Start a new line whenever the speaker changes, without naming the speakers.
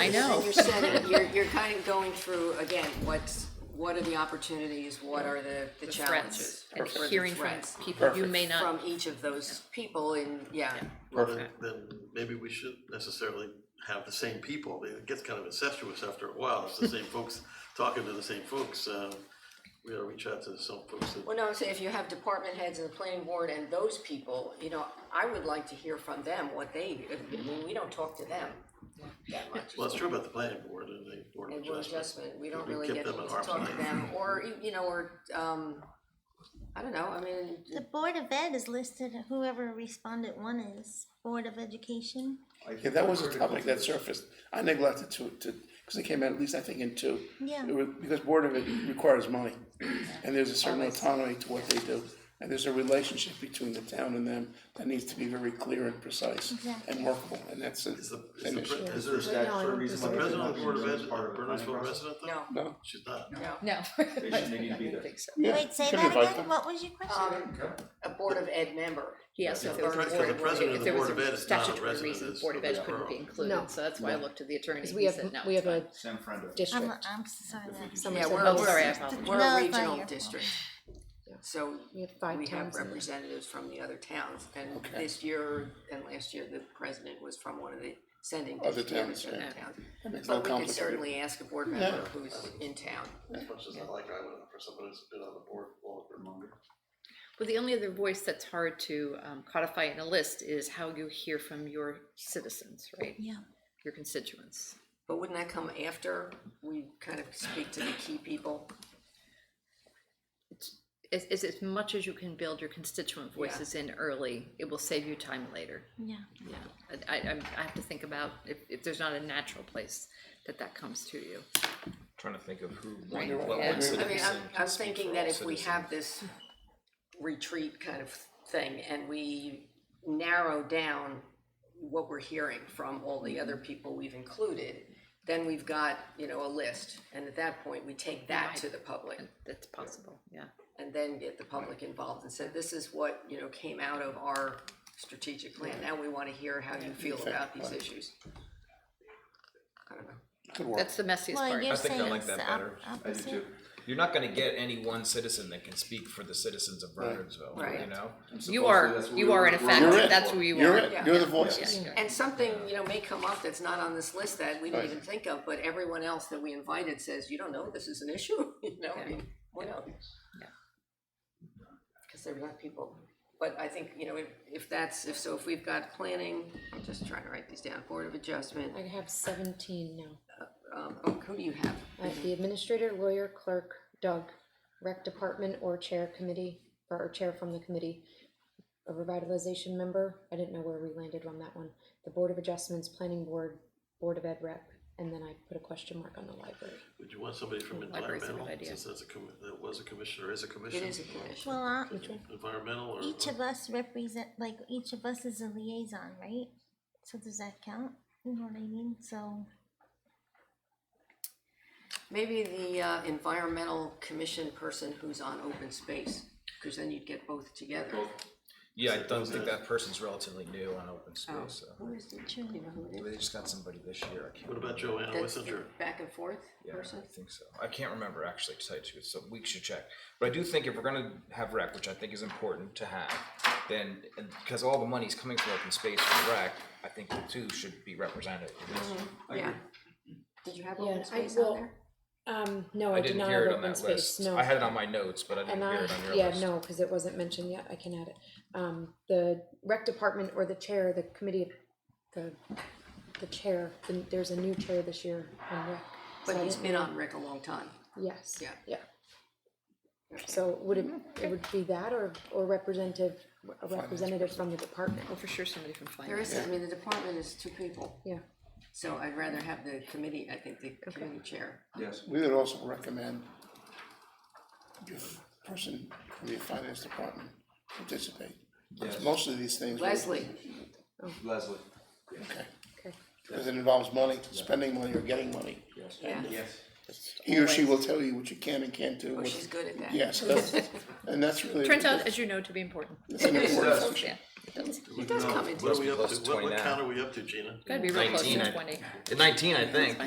I know.
And you're setting, you're, you're kind of going through, again, what's, what are the opportunities, what are the, the
The
challenges?
threats and
What are the
hearing from
threats
people you may
From
not,
each of those people in, yeah,
Well, then, then maybe we should necessarily have the same people. It gets kind of incestuous after a while. It's the same folks talking to the same folks. Um, we gotta reach out to some folks that,
well, no, so if you have department heads and the planning board and those people, you know, I would like to hear from them, what they, I mean, we don't talk to them that much.
well, it's true about the planning board and the board of
And we're
adjustment.
adjustment, we don't
We
really
kept
get to
them at arm's
talk to
length.
them, or, you know, or, um, I don't know, I mean,
The Board of Ed is listed, whoever respondent one is, Board of Education.
Yeah, that was a topic that surfaced. I neglected to, to, because it came out at least, I think, in two.
Yeah.
It was, because Board of It requires money, and there's a certain autonomy to what they do. And there's a relationship between the town and them that needs to be very clear and precise and workable, and that's a,
Is the, is
an
the,
issue.
pre- is
Is
there
there
a
a statutory
is the
reason why
president of
not
the board of
be
ed,
as
a
part of the planning
Bernardsville
process?
resident
no,
though?
No?
She's not.
no.
no.
They should- they need to be there.
Yeah,
Wait, say
you can
that
invite
again?
them.
What was your question?
Um, a Board of Ed member.
Yes, if there was a
Yeah,
board,
because
the president
if
of
there
the
was
Board of Ed
a
is not a
statutory
resident
reason,
of this-
Board of
of
Ed
this
couldn't be
borough.
No.
included, so that's why I looked to the attorney,
Because we
he
have,
said no,
we
it's
have a
fine.
Sam Friend of.
Um,
I'm,
district.
I'm sorry. that's-
Yeah,
So
we're,
both are
we're,
absent.
we're
No,
a
it's
regional
not your fault.
district. So
We have five
we have
towns in it.
representatives from the other towns, and this year and last year, the president was from one of the sending
Other
districts.
towns,
other
yeah.
towns.
That makes it
But we could
complicated.
certainly ask a board member who's in town.
As much as I like Iowa, for someone who's been on the board longer.
Well, the only other voice that's hard to um, codify in a list is how you hear from your citizens, right?
Yeah.
Your constituents.
But wouldn't that come after we kind of speak to the key people?
It's, it's, it's as much as you can build your constituent voices in early, it will save you time later.
Yeah.
Yeah, I, I, I'm- I have to think about if, if there's not a natural place that that comes to you.
Trying to think of who,
Right.
one, what
Yeah. I mean,
one
I mean,
citizen
I'm,
can
I'm
speak
thinking
for
that
all
if we
citizens.
have this retreat kind of thing and we narrow down what we're hearing from all the other people we've included, then we've got, you know, a list. And at that point, we take that to the public
That's possible, yeah.
and then get the public involved and said, this is what, you know, came out of our strategic plan. Now we want to hear how you feel about these issues. I don't know.
Good work.
That's the messiest
Well,
part.
you're
think I
saying
like
it's
that
the
better.
op-
I do too.
opposite.
You're not gonna get any one citizen that can speak for the citizens of Bernardsville,
Right.
you know?
You are, you are in
You're
effect,
it.
that's who you
You're
are.
it, you're the voices.
Yeah.
And something, you know, may come up that's not on this list that we didn't
Right.
even think of, but everyone else that we invited says, you don't know, this is an issue, you know, I mean, what else?
Yeah.
Cause they're not people, but I think, you know, if, if that's, if so, if we've got planning, I'm just trying to write these down, Board of Adjustment,
I have seventeen now.
um, oh, who do you have?
I have the administrator, lawyer, clerk, Doug, rec department or chair committee, or chair from the committee, a revitalization member, I didn't know where we landed on that one, the board of adjustments, planning board, board of ed rep, and then I put a question mark on the library.
Would you want somebody from
Library's a good
environmental,
idea.
since that's a, commi- that was a commissioner, is a
It
commission?
is a commission,
Well, uh,
Environmental or?
each of us represent, like, each of us is a liaison, right? So does that count? You know what I mean? So,
maybe the, uh, environmental commission person who's on open space, cause then you'd get both together.
Yeah, I don't think that person's relatively new on
Oh.
open space, so.
Who is the, do you know who it is?
They just got somebody this year, I can't.
What about
remember.
Joanna
That's the
Wissinger?
back and forth
Yeah,
person?
I think so. I can't remember actually to tell you the truth, so we should check. But I do think if we're gonna have rec, which I think is important to have, then, and because all the money's coming from open space for rec, I think the two should be represented. in this.
Mm-hmm.
Yeah. Did you have
Yeah,
open
I-
space on
well,
there?
Um, no,
I
I did
didn't
not
hear
have
it on
open
that
space,
list.
no.
I had it on my notes, but I
And
didn't hear
I,
it on your
yeah,
list.
no, because it wasn't mentioned yet, I can add it. Um, the rec department or the chair, the committee, of- the, the chair, the- there's a new chair this year on rec. so
But
I
he's
didn't-
been on Rick a long time.
Yes.
Yeah.
Yeah. So would it, it would be that or, or representative, a representative from the department?
Oh, for sure somebody from
There
finance.
is, I mean, the department is two people,
Yeah,
so I'd rather have the committee, I think, the committee chair.
Yes.
We would also recommend your person from the finance department participate.
Yes.
Most of these things.
Leslie,
Leslie.
Okay.
okay.
Because it involves money, spending money or getting money.
yeah,
Yes.
He or she will tell you what you can and can't do.
oh,
what-
she's good at that.
Yeah, so that's, and that's really.
Turns out, as you know, to be important.
It's an important
Yes.
function.
Yeah,
It
does come in
What are
two.
we up
Plus
to, what,
20
what
now.
count are we up to, Gina?
Gotta be real close
19,
to
I-
twenty.
Nineteen, I think.